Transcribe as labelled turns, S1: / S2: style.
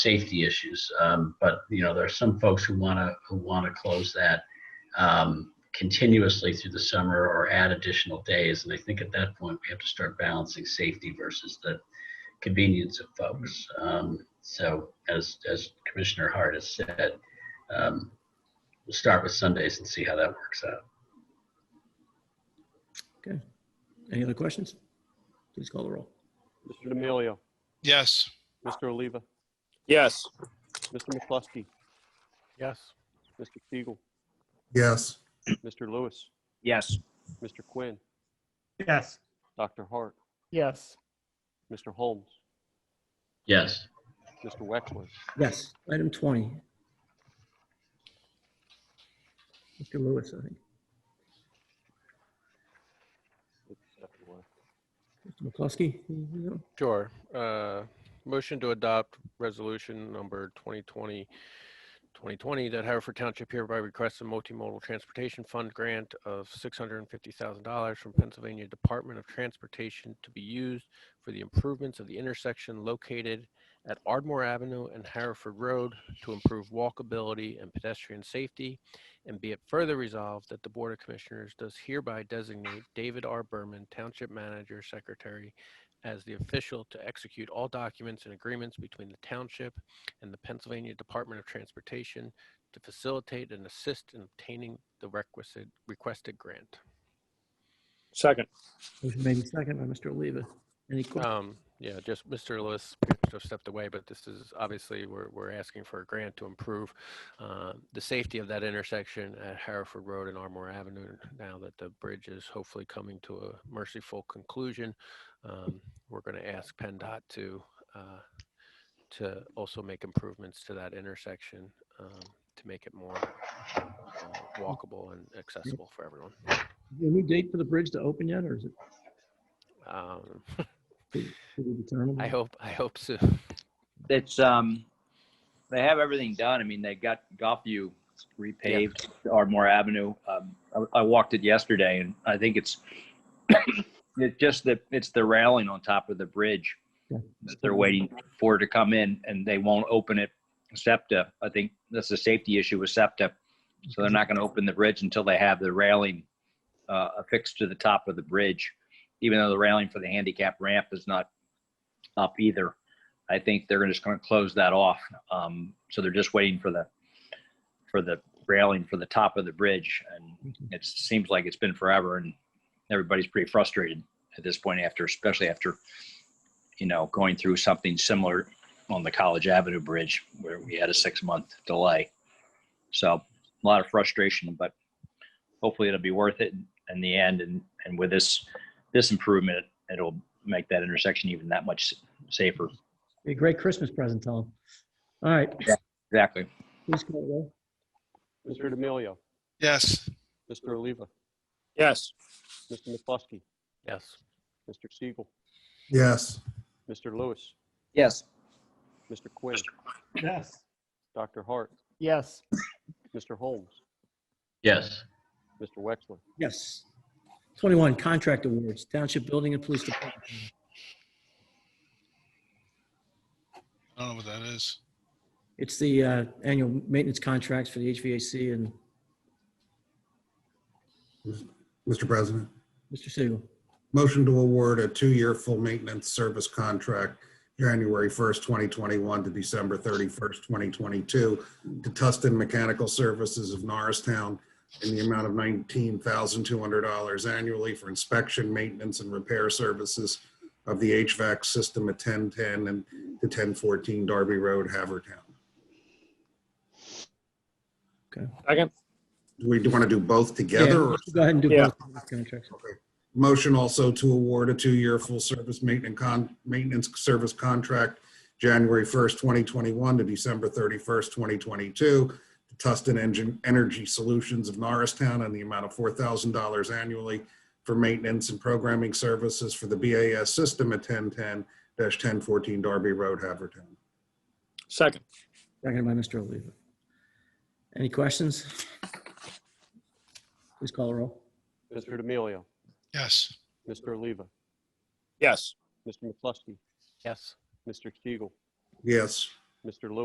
S1: safety issues. Um, But, you know, there are some folks who want to, who want to close that um, continuously through the summer or add additional days. And I think at that point, we have to start balancing safety versus the convenience of folks. Um, So as, as Commissioner Hart has said, um, we'll start with Sundays and see how that works out.
S2: Any other questions? Please call the roll.
S3: Mr. D'Amelio.
S4: Yes.
S3: Mr. Oliva.
S5: Yes.
S3: Mr. McCluskey.
S4: Yes.
S3: Mr. Siegel.
S6: yes,
S3: Mr. Lewis.
S5: Yes.
S3: Mr. Quinn.
S4: Yes.
S3: Dr. Hart.
S4: Yes.
S3: Mr. Holmes.
S1: Yes,
S3: Mr. Wexler.
S2: Yes. Item 20. Mr. Lewis, I think. Mr. McCluskey? you know?
S7: Sure. Uh, Motion to adopt resolution number 2020, 2020, that Haverford Township hereby requests a multimodal transportation fund grant of $650,000 from Pennsylvania Department of Transportation to be used for the improvements of the intersection located at Ardmore Avenue and Hereford Road to improve walkability and pedestrian safety. And be it further resolved that the Board of Commissioners does hereby designate David R. Berman, Township Manager, Secretary, as the official to execute all documents and agreements between the township and the Pennsylvania Department of Transportation to facilitate and assist in obtaining the requisite requested grant.
S5: Second.
S2: Motion made in second by Mr. Oliva. Any questions?
S7: Um, yeah, just Mr. Lewis sort of stepped away, but this is obviously we're, we're asking for a grant to improve uh, the safety of that intersection at Hereford Road and Armour Avenue now that the bridge is hopefully coming to a merciful conclusion. Um, we're going to ask PennDOT to uh, to also make improvements to that intersection um, to make it more uh, walkable and accessible for everyone.
S2: Any date for the bridge to open yet, or is it
S7: Um,
S2: to be determined?
S7: I hope I hope so.
S5: It's, um, they have everything done. I mean, they got Golfview repaved, Ardmore Avenue. Um, I, I walked it yesterday and I think it's, it's just that it's the railing on top of the bridge
S2: Yeah.
S5: that they're waiting for to come in and they won't open it SEPTA. I think that's a safety issue with SEPTA. So they're not going to open the bridge until they have the railing uh, affixed to the top of the bridge, even though the railing for the handicap ramp is not up either. I think they're just going to close that off. Um, so they're just waiting for the for the railing for the top of the bridge, and it seems like it's been forever, and everybody's pretty frustrated at this point. After, especially after, you know, going through something similar on the College Avenue Bridge where we had a six month delay. So a lot of frustration, but hopefully it'll be worth it in the end. And and with this this improvement, it'll make that intersection even that much safer.
S2: Be a great Christmas present, Tom. All right,
S5: Exactly.
S2: please call the roll.
S3: Mr. D'Amelio.
S4: Yes.
S3: Mr. Oliva.
S5: Yes.
S3: Mr. McCluskey.
S7: Yes.
S3: Mr. Siegel.
S6: yes,
S3: Mr. Lewis.
S5: Yes.
S3: Mr. Quinn.
S4: Yes.
S3: Dr. Hart.
S4: Yes.
S3: Mr. Holmes.
S1: yes,
S3: Mr. Wexler.
S2: Yes. 21, contract awards, Township Building and Police Department.
S4: I don't know what that is.
S2: It's the uh, annual maintenance contracts for the HVAC and
S6: Mr. President.
S2: Mr. Siegel.
S6: Motion to award a two-year full maintenance service contract, January 1st, 2021 to December 31st, 2022, to Tustin Mechanical Services of Norristown in the amount of $19,200 annually for inspection, maintenance, and repair services of the HVAC system at 1010 and to 1014 Darby Road, Havertown.
S5: Second.
S6: Do we want to do both together? or-
S2: Go ahead and do
S5: Yeah.
S2: both of these contracts.
S6: Motion also to award a two-year full-service maintenance con, maintenance service contract, January 1st, 2021 to December 31st, 2022, to Tustin Engine Energy Solutions of Norristown and the amount of $4,000 annually for maintenance and programming services for the BAS system at 1010-1014 Darby Road, Havertown.
S5: Second.
S2: Second by Mr. Oliva. Any questions? Please call the roll.
S3: Mr. D'Amelio.
S4: Yes.
S3: Mr. Oliva.
S5: Yes.
S3: Mr. McCluskey.
S7: Yes.
S3: Mr. Siegel.
S6: Yes,
S3: Mr. Lewis.